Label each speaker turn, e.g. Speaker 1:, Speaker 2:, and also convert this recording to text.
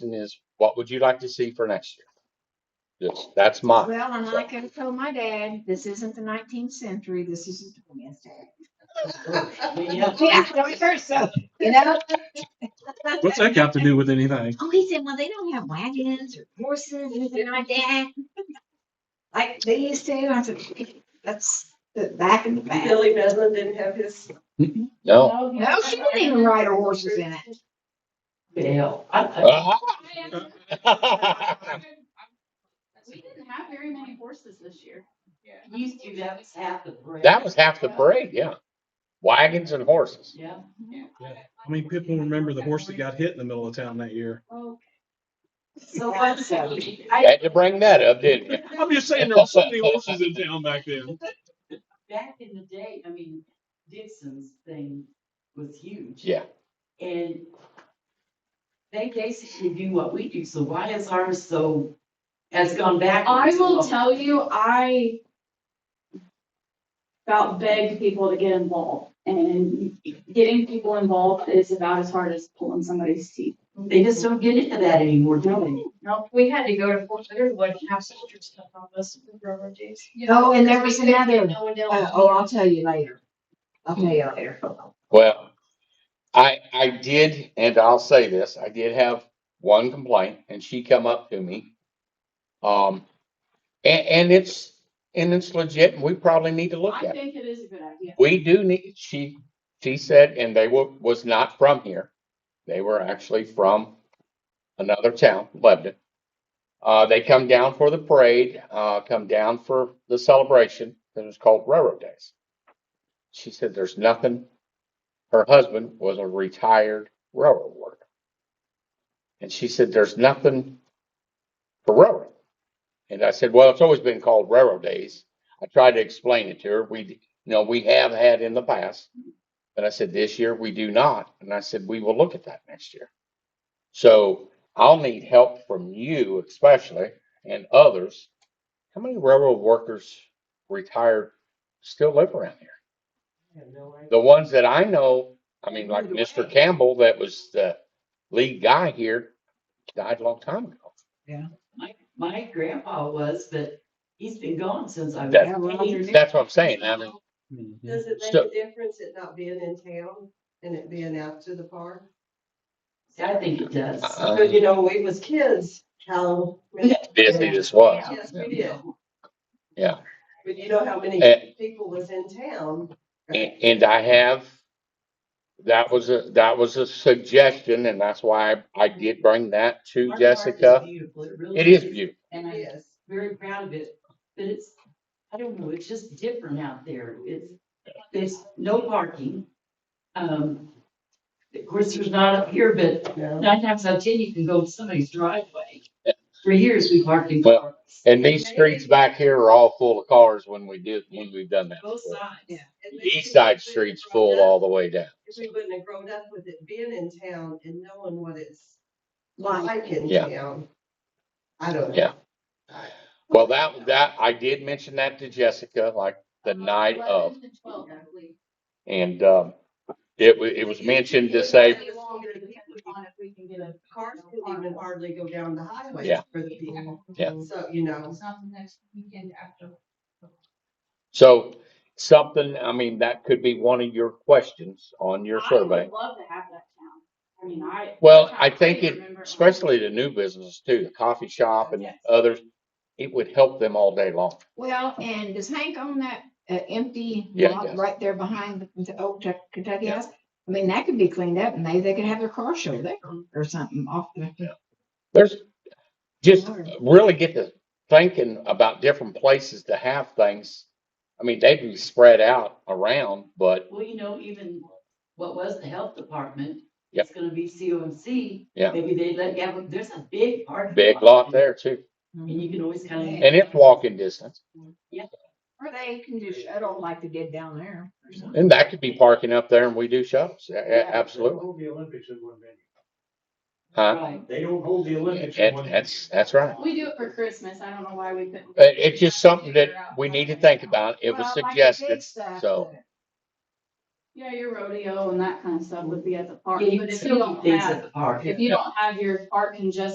Speaker 1: question is, what would you like to see for next year? Just, that's mine.
Speaker 2: Well, and
Speaker 1: So,
Speaker 2: I could tell my dad, this isn't the nineteenth century, this is the twentieth
Speaker 3: Yeah.
Speaker 2: Yeah, twenty-first, so, you know?
Speaker 4: What's that got to do with anything?
Speaker 2: Oh, he said, well, they don't have wagons or horses or anything like that. Like they used to, I said, that's the back in the back.
Speaker 3: Billy Bedlin didn't have his.
Speaker 1: No.
Speaker 2: No, Oh, she didn't even ride her horses in it.
Speaker 3: Bill. I- I-
Speaker 1: Uh-huh.
Speaker 5: We didn't have very many horses this year.
Speaker 3: Used to, that was half the parade.
Speaker 1: That was half the parade, yeah. Wagons and horses.
Speaker 3: Yeah.
Speaker 4: I mean, people remember the horse that got hit in the middle of town that year.
Speaker 3: So what's that?
Speaker 1: Had to bring that up, didn't you?
Speaker 4: I'm just saying, there were so many horses in town back then.
Speaker 3: Back in the day, I mean, Dixon's thing was huge.
Speaker 1: Yeah.
Speaker 3: And they basically do what we do, so why is ours so, has gone back?
Speaker 5: I will tell you, I about begged people to get involved and getting people involved is about as hard as pulling somebody's teeth.
Speaker 3: They just don't get into that anymore, do
Speaker 5: No, we had to go to Fort Underwood and have soldiers come help us with our days.
Speaker 2: Oh, and there was another,
Speaker 5: No one
Speaker 2: uh,
Speaker 5: else.
Speaker 2: oh, I'll tell you later. I'll tell you later.
Speaker 1: Well, I, I did, and I'll say this, I did have one complaint and she come up to me. Um, and, and it's, and it's legit and we probably need to look
Speaker 5: I
Speaker 1: at it.
Speaker 5: think it is a good idea.
Speaker 1: We do need, she, she said, and they were, was not from here. They were actually from another town, Lebanon. Uh, they come down for the parade, uh, come down for the celebration that was called Railroad Days. She said there's nothing. Her husband was a retired railroad worker. And she said there's nothing for railroad. And I said, well, it's always been called Railroad Days. I tried to explain it to her. We, you know, we have had in the past. But I said, this year we do not. And I said, we will look at that next year. So I'll need help from you especially and others. How many railroad workers retired still live around here? The ones that I know, I mean, like
Speaker 3: Moved away.
Speaker 1: Mr. Campbell, that was the lead guy here, died a long time ago.
Speaker 3: My, my grandpa was, but he's been gone since I was.
Speaker 1: That's-
Speaker 3: eight.
Speaker 1: That's what I'm saying. I mean,
Speaker 6: Does it make
Speaker 1: So-
Speaker 6: a difference it not being in town and it being out to the park?
Speaker 3: I think it does.
Speaker 1: Uh-uh.
Speaker 6: But you know, we was kids, how many,
Speaker 1: busy this was.
Speaker 6: yes, we did,
Speaker 1: Yeah.
Speaker 6: but you know how
Speaker 1: Eh.
Speaker 6: many people was in town?
Speaker 1: And, and I have, that was a, that was a suggestion and that's why I, I did bring that to
Speaker 3: Our park is
Speaker 1: Jessica.
Speaker 3: beautiful, really
Speaker 1: It is beautiful.
Speaker 3: And I'm
Speaker 6: Yes,
Speaker 3: very proud of it, but it's, I don't know, it's just different out there. It's, there's no parking. Um, of course, there's not up here, but
Speaker 6: no,
Speaker 3: nine times out of ten, you can go to somebody's driveway. For years, we parked in
Speaker 1: Well,
Speaker 3: cars,
Speaker 1: And these streets back here are all full of cars when we did, when we've done that.
Speaker 3: both
Speaker 1: before.
Speaker 3: sides.
Speaker 6: And
Speaker 1: The
Speaker 6: maybe
Speaker 1: East side
Speaker 6: if we
Speaker 1: street's
Speaker 6: would've grown
Speaker 1: full
Speaker 6: up-
Speaker 1: all the way down.
Speaker 6: If we wouldn't have grown up with it being in town and knowing what it's
Speaker 2: Like,
Speaker 6: like in
Speaker 1: Yeah.
Speaker 6: town, I don't know.
Speaker 1: Yeah. Well, that, that, I did mention that to Jessica like
Speaker 5: Oh,
Speaker 1: the night of
Speaker 5: Eleven and twelve, I believe.
Speaker 1: and, um, it wa, it was mentioned to say,
Speaker 5: It'll be longer depending on if we can get a-
Speaker 6: Cars could even hardly go down the highway
Speaker 1: Yeah.
Speaker 6: for the people,
Speaker 1: Yeah.
Speaker 6: so, you know,
Speaker 5: It's not the next weekend after.
Speaker 1: so something, I mean, that could be one of your questions on your
Speaker 5: I
Speaker 1: survey.
Speaker 5: would love to have that town. I mean, I.
Speaker 1: Well, I think it,
Speaker 5: remember-
Speaker 1: especially the new businesses too, the coffee shop and
Speaker 3: Yes.
Speaker 1: others, it would help them all day long.
Speaker 2: Well, and does Hank own that, uh, empty
Speaker 1: Yeah,
Speaker 2: lot
Speaker 1: yes.
Speaker 2: right there behind the- the old Tuck- Kentucky
Speaker 1: Yeah.
Speaker 2: house? I mean, that could be cleaned up and maybe they could have their car show there
Speaker 1: Mm-hmm.
Speaker 2: or something off the.
Speaker 1: There's just
Speaker 2: Sure.
Speaker 1: really get to thinking about different places to have things. I mean, they'd be spread out around, but
Speaker 3: Well, you know, even what was the health department,
Speaker 1: Yep.
Speaker 3: it's gonna be COMC.
Speaker 1: Yeah.
Speaker 3: Maybe they let, yeah, well, there's a big parking.
Speaker 1: big lot there too.
Speaker 3: And you can always kind of.
Speaker 1: And it's walking distance
Speaker 2: Or they can do shuttle like they did down there. or something.
Speaker 1: and that could be parking up there and we do shops. A- a-
Speaker 5: Yeah.
Speaker 1: Absolutely.
Speaker 7: Hold the Olympics in one venue.
Speaker 1: Huh?
Speaker 3: Right.
Speaker 7: They don't hold the Olympics in
Speaker 1: And
Speaker 7: one.
Speaker 1: that's, that's right.
Speaker 5: We do it for Christmas. I don't know why we couldn't.
Speaker 1: It, it's just something that we need to think about. It was
Speaker 2: Well, like the big
Speaker 1: suggested,
Speaker 2: stuff
Speaker 1: so.
Speaker 2: that-
Speaker 5: Yeah, your rodeo and that kind of stuff would be at the park,
Speaker 3: Yeah, you can
Speaker 5: but if you
Speaker 3: still do
Speaker 5: don't
Speaker 3: things
Speaker 5: have,
Speaker 3: at the park.
Speaker 5: if you don't have your park congested